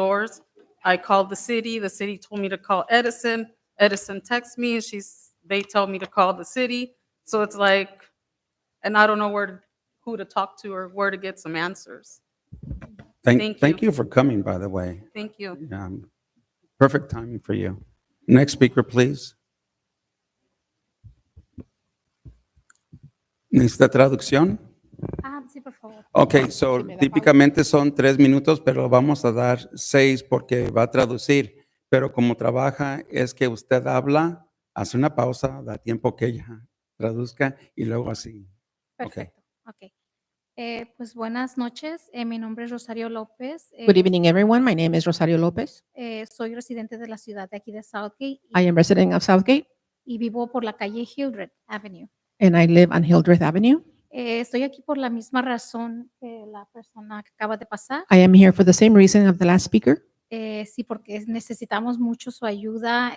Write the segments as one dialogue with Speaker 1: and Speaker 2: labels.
Speaker 1: doors. I called the city, the city told me to call Edison, Edison texted me, and she's, they tell me to call the city. So it's like, and I don't know where, who to talk to or where to get some answers. Thank
Speaker 2: Thank,
Speaker 1: you.
Speaker 2: thank you for coming, by the way.
Speaker 1: Thank you.
Speaker 2: Um, Perfect timing for you. Next speaker, please. ¿Necesita traducción?
Speaker 3: Ah, sí, por favor.
Speaker 2: Ok, so
Speaker 3: Si me da
Speaker 2: típicamente son tres minutos, pero vamos a dar seis porque va a traducir. Pero como trabaja es que usted habla, hace una pausa, da tiempo que ella traduzca y luego así.
Speaker 3: Perfecto. Ok. Eh, pues buenas noches. Eh, mi nombre es Rosario López. Eh,
Speaker 4: Good evening, everyone. My name is Rosario Lopez.
Speaker 3: eh, soy residente de la ciudad de aquí de Southgate y,
Speaker 4: I am resident of Southgate
Speaker 3: y vivo por la calle Hildred Avenue.
Speaker 4: and I live on Hildreth Avenue.
Speaker 3: Eh, estoy aquí por la misma razón que la persona que acaba de pasar.
Speaker 4: I am here for the same reason of the last speaker.
Speaker 3: Eh, sí, porque es- necesitamos mucho su ayuda.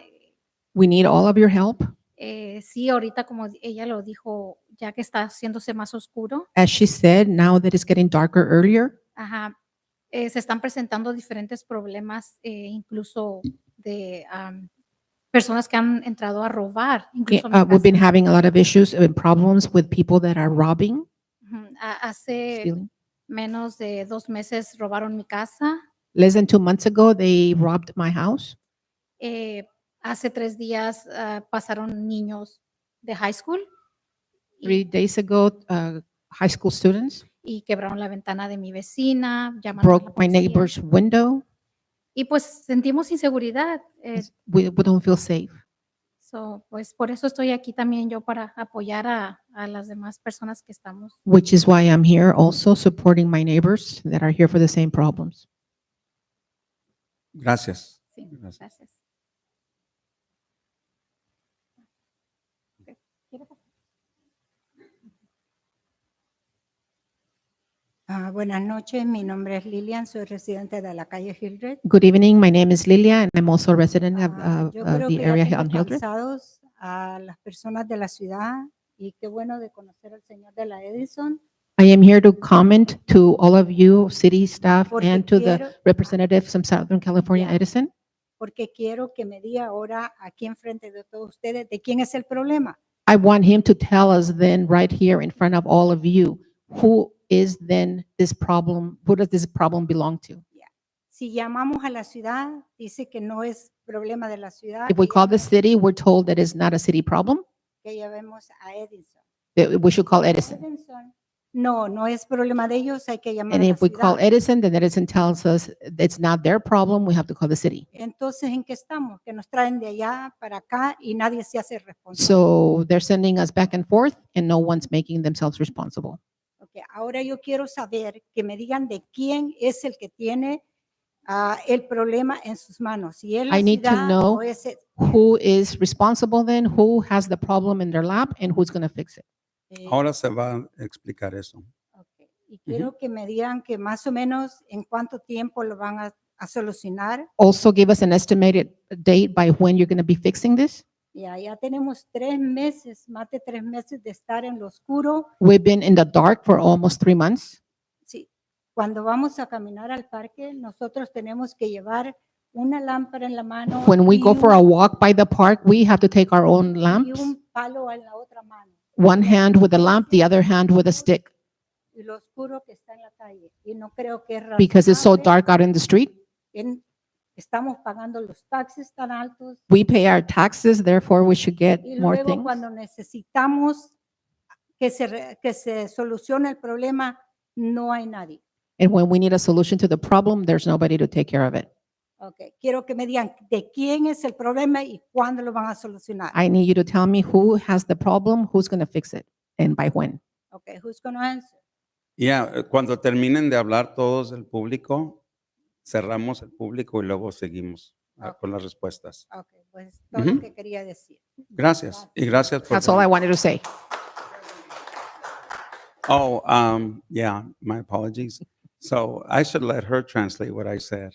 Speaker 4: We need all of your help.
Speaker 3: Eh, sí, ahorita como ella lo dijo, ya que está haciéndose más oscuro,
Speaker 4: As she said, now that it's getting darker earlier,
Speaker 3: ajá, eh, se están presentando diferentes problemas, eh, incluso de am, personas que han entrado a robar.
Speaker 4: yeah,
Speaker 3: Incluso a mi
Speaker 4: uh, we've been
Speaker 3: casa.
Speaker 4: having a lot of issues and problems with people that are robbing,
Speaker 3: Ujú, a- Hace
Speaker 4: stealing.
Speaker 3: menos de dos meses robaron mi casa.
Speaker 4: Less than two months ago, they robbed my house.
Speaker 3: eh, hace tres días ah, pasaron niños de high school y-
Speaker 4: Three days ago, uh, high school students
Speaker 3: y quebraron la ventana de mi vecina, llamaron a la
Speaker 4: broke my
Speaker 3: policía.
Speaker 4: neighbor's window.
Speaker 3: Y pues sentimos inseguridad. eh,
Speaker 4: It's- We, we don't feel safe.
Speaker 3: so, pues por eso estoy aquí también yo para apoyar a, a las demás personas que estamos.
Speaker 4: which is why I'm here also supporting my neighbors that are here for the same problems.
Speaker 2: Gracias.
Speaker 3: Sí,
Speaker 2: Gracias.
Speaker 3: gracias.
Speaker 5: Ah, buenas noches, mi nombre es Lilian, soy residente de la calle Hildred.
Speaker 4: Good evening, my name is Lilia and I'm also a resident of,
Speaker 5: Ah,
Speaker 4: of
Speaker 5: yo
Speaker 4: of
Speaker 5: creo
Speaker 4: the
Speaker 5: que ya
Speaker 4: area here
Speaker 5: tengo
Speaker 4: on Hildreth.
Speaker 5: cansados a las personas de la ciudad y qué bueno de conocer al señor de la Edison.
Speaker 4: I am here to comment to all of you, city staff
Speaker 5: Porque
Speaker 4: and to the
Speaker 5: quiero-
Speaker 4: representatives from Southern California
Speaker 5: Yeah.
Speaker 4: Edison,
Speaker 5: Porque quiero que me diga ahora aquí enfrente de todos ustedes de quién es el problema.
Speaker 4: I want him to tell us then right here in front of all of you, who is then this problem, who does this problem belong to?
Speaker 5: Si llamamos a la ciudad, dice que no es problema de la ciudad.
Speaker 4: If we
Speaker 5: que
Speaker 4: call the city, we're told that it's not a city problem,
Speaker 5: Que llamemos a Edison.
Speaker 4: that we should call Edison.
Speaker 5: Edison, no, no es problema de ellos, hay que llamar
Speaker 4: And
Speaker 5: a la
Speaker 4: if we call
Speaker 5: ciudad.
Speaker 4: Edison, then Edison tells us it's not their problem, we have to call the city.
Speaker 5: Entonces, ¿en qué estamos? Que nos traen de allá para acá y nadie se hace responsable.
Speaker 4: So they're sending us back and forth and no one's making themselves responsible.
Speaker 5: Ok, Ahora yo quiero saber que me digan de quién es el que tiene ah, el problema en sus manos. Si es la
Speaker 4: I need to
Speaker 5: ciudad
Speaker 4: know
Speaker 5: o es el-
Speaker 4: Who is responsible then? Who has the problem in their lap and who's going to fix it?
Speaker 5: eh,
Speaker 2: Ahora se va a explicar eso.
Speaker 5: ok, Y quiero que me digan que más o menos en cuánto tiempo lo van a, a solucionar.
Speaker 4: Also give us an estimated date by when you're going to be fixing this.
Speaker 5: Y allá tenemos tres meses, más de tres meses de estar en lo oscuro.
Speaker 4: We've been in the dark for almost three months.
Speaker 5: Sí, cuando vamos a caminar al parque, nosotros tenemos que llevar una lámpara en la mano.
Speaker 4: When we
Speaker 5: y
Speaker 4: go for a
Speaker 5: un-
Speaker 4: walk by the park, we have to take our own
Speaker 5: Y
Speaker 4: lamps,
Speaker 5: un palo en la otra mano.
Speaker 4: one hand with a lamp, the other hand with a stick,
Speaker 5: y lo oscuro que está en la calle. Y no creo que es
Speaker 4: because it's so
Speaker 5: razonable.
Speaker 4: dark out in the street.
Speaker 5: En- estamos pagando los taxes tan altos.
Speaker 4: we pay our taxes, therefore we should get
Speaker 5: Y
Speaker 4: more
Speaker 5: luego
Speaker 4: things.
Speaker 5: cuando necesitamos que se, re- que se solucione el problema, no hay nadie.
Speaker 4: And when we need a solution to the problem, there's nobody to take care of it.
Speaker 5: Ok, Quiero que me digan de quién es el problema y cuándo lo van a solucionar.
Speaker 4: I need you to tell me who has the problem, who's going to fix it, and by when.
Speaker 5: Ok, who's gonna answer?
Speaker 2: Ya, eh, cuando terminen de hablar todos el público, cerramos el público y luego seguimos ah,
Speaker 5: Ok.
Speaker 2: con las respuestas.
Speaker 5: Ok, pues todo lo
Speaker 2: Ujú.
Speaker 5: que quería decir.
Speaker 2: Gracias y gracias por.
Speaker 4: That's all I wanted to say.
Speaker 2: Oh, um, yeah, my apologies. So I should let her translate what I said.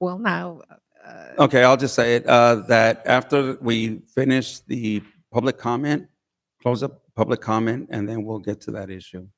Speaker 4: Well, now, uh,
Speaker 2: Okay, I'll just say it, uh, that after we finish the public comment, close up public comment, and then we'll get to that issue.